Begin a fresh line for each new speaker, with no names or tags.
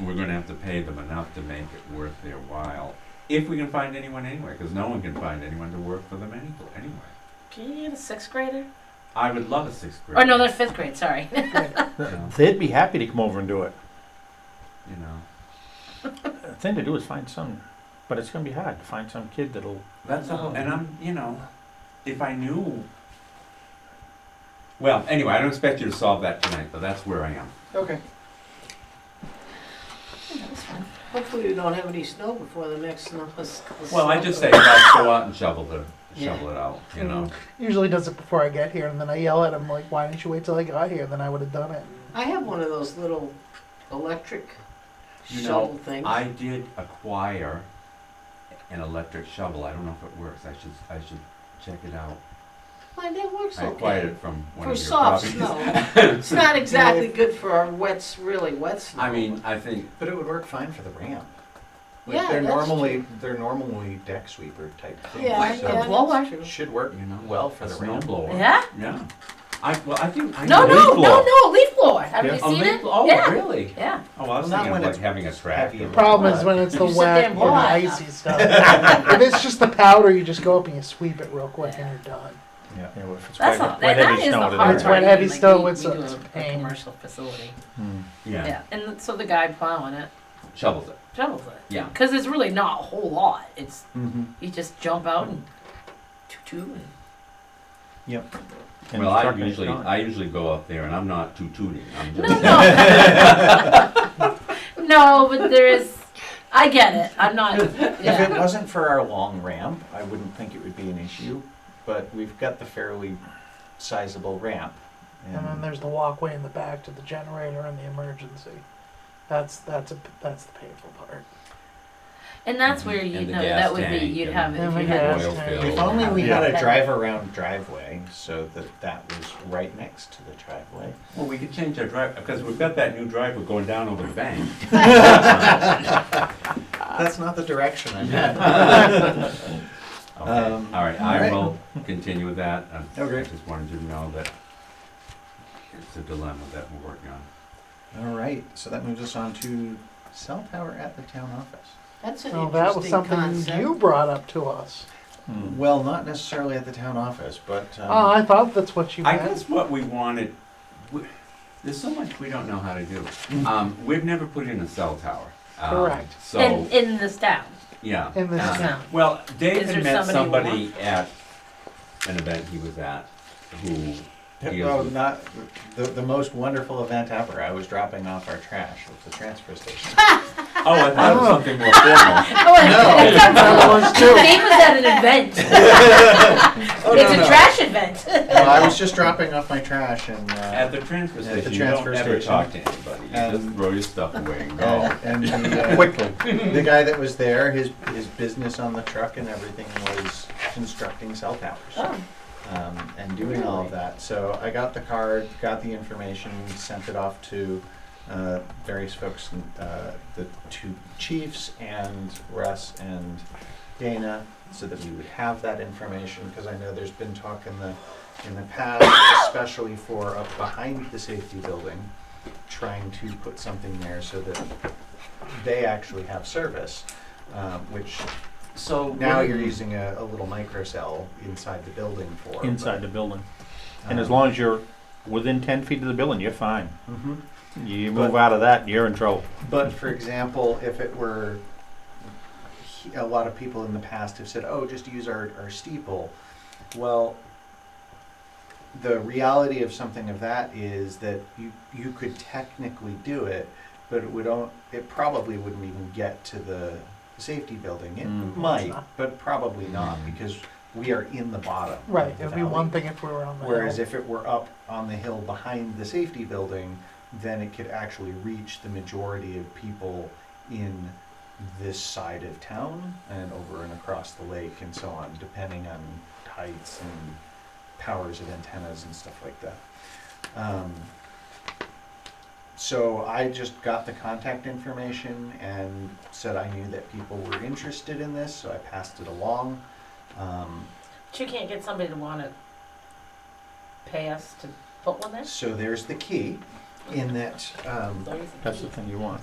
we're gonna have to pay them enough to make it worth their while, if we can find anyone anyway, because no one can find anyone to work for them any- anyway.
Can you get a sixth grader?
I would love a sixth
Oh,
grader.
Or no, they're fifth grade. Sorry.
Yeah.
They'd be happy to come over and do it.
You know,
The thing to do is find some, but it's gonna be hard to find some kid that'll.
that's a whole, and I'm, you know, if I knew. Well, anyway, I don't expect you to solve that tonight, but that's where I am.
Okay.
that was fun.
Hopefully we don't have any snow before the next snow.
Well, I just say, guys, go out and shovel the, shovel it out, you know.
Usually does it before I get here, and then I yell at him like, "Why didn't you wait till I got here? Then I would have done it."
I have one of those little electric
You
shovel
know,
things.
I did acquire an electric shovel. I don't know if it works. I should, I should check it out.
Mine, that works
I acquired
okay.
it from one
For
of your
soft
properties.
snow. It's not exactly good for our wets, really wet snow.
I mean, I think,
But it would work fine for the ramp. Like
Yeah,
they're
that's
normally they're normally deck sweeper type things.
Yeah,
Or a
yeah, that's
so
blower.
true.
it should work
You know,
well for
a
the ramp.
snowblower.
Yeah.
yeah. I, well, I think. I know
No, no,
leaf
no,
blower.
no. Leaf blower. Have
Yeah.
you
A
seen
leaf-
it?
Oh,
yeah.
really?
Yeah.
Oh, well, I was
Not
thinking
when
of like
it's
having a
heavy.
tractor.
Problem is when it's the
You sit there
wet
and
and
blow it up.
icy stuff. if it's just the powder, you just go up and you sweep it real quick, and you're done.
Yeah.
You know, if it's
That's
wet-
all.
wet
That,
heavy
that is the
snow,
hard
then
It's
part.
it's
wet
right.
heavy
Like,
snow,
we-
it's
we
a-
do
it's
a,
a
a
pain.
commercial facility.
Hmm.
Yeah.
Yeah,
And so the guy plowing it
shovels it.
shovels it.
Yeah.
Because it's really not a whole lot. It's
Mm-hmm.
you just jump out and toot toot. And,
Yep. And
Well, I
truck is
usually,
gone.
I usually go up there and I'm not tututing. I'm
No,
just,
no. no, but there is. I get it. I'm not.
If it
Yeah.
wasn't for our long ramp, I wouldn't think it would be an issue. But we've got the fairly sizable ramp.
And then
And
there's the walkway in the back to the generator and the emergency. That's that's a that's the painful part.
And that's where you
And the
know
gas
that would be
tank
you'd
and
have it if
the
you
gas
had.
oil
tank.
field.
if only we
Yeah.
had a drive around driveway so that that was right next to the driveway.
Well, we could change our drive, because we've got that new driveway going down over the bank.
That's not the direction I'm in.
Okay, all
Um,
right,
all
I
right.
will continue with that. I- I
Okay.
just wanted you to know that it's a dilemma that we're working on.
All right, so that moves us on to cell tower at the town office.
That's an
Well, that was
interesting
something
concept.
you brought up to us.
Hmm.
Well, not necessarily at the town office, but um,
oh, I thought that's what you
I
meant.
guess what we wanted, we- there's so much we don't know how to do. Um, We've never put in a cell tower. Um,
Correct.
So,
in, in this town.
yeah.
In this
uh,
town.
Well, Dave
Is
had
there
met
somebody you
somebody at an event he was at who
well,
deals with
not the, the most wonderful event ever. I was dropping off our trash at the transfer station.
Oh, I thought it was
Oh.
something more formal.
Oh, it sounds
that
cool.
was too.
Dave was at an event.
oh,
it's a trash event.
Well, I was just dropping off my trash and uh,
At the transfer
At the
station, you
transfer
don't ever
station.
talk to anybody. You just
Um,
throw your stuff away and go.
oh, and the, uh, the guy that was there, his his business on the truck and everything was constructing cell towers.
Oh.
um, and doing all of that. So I got the card, got the information, sent it off to uh, various folks, uh, the two chiefs and Russ and Dana, so that we would have that information because I know there's been talk in the in the past, especially for up behind the safety building, trying to put something there so that they actually have service, um, which
So
now you're using a, a little microcell inside the building for
mm, Inside the building, and as long as you're within ten feet of the building, you're fine.
hmm
You
But-
move out of that, you're in trouble.
But for example, if it were, he- a lot of people in the past have said, "Oh, just use our, our steeple." Well, the reality of something of that is that you you could technically do it, but it would on, it probably wouldn't even get to the safety building. It
Mm.
might, but probably not because we are in the bottom. of
Right,
the
it'd be
valley.
one thing if we were on the
Whereas
hill.
if it were up on the hill behind the safety building, then it could actually reach the majority of people in this side of town and over and across the lake and so on, depending on heights and powers of antennas and stuff like that. Um, so I just got the contact information and said I knew that people were interested in this, so I passed it along. Um,
But you can't get somebody to want to pay us to put one there.
So there's the key in that um,
Don't you think
That's
you-
the thing you want.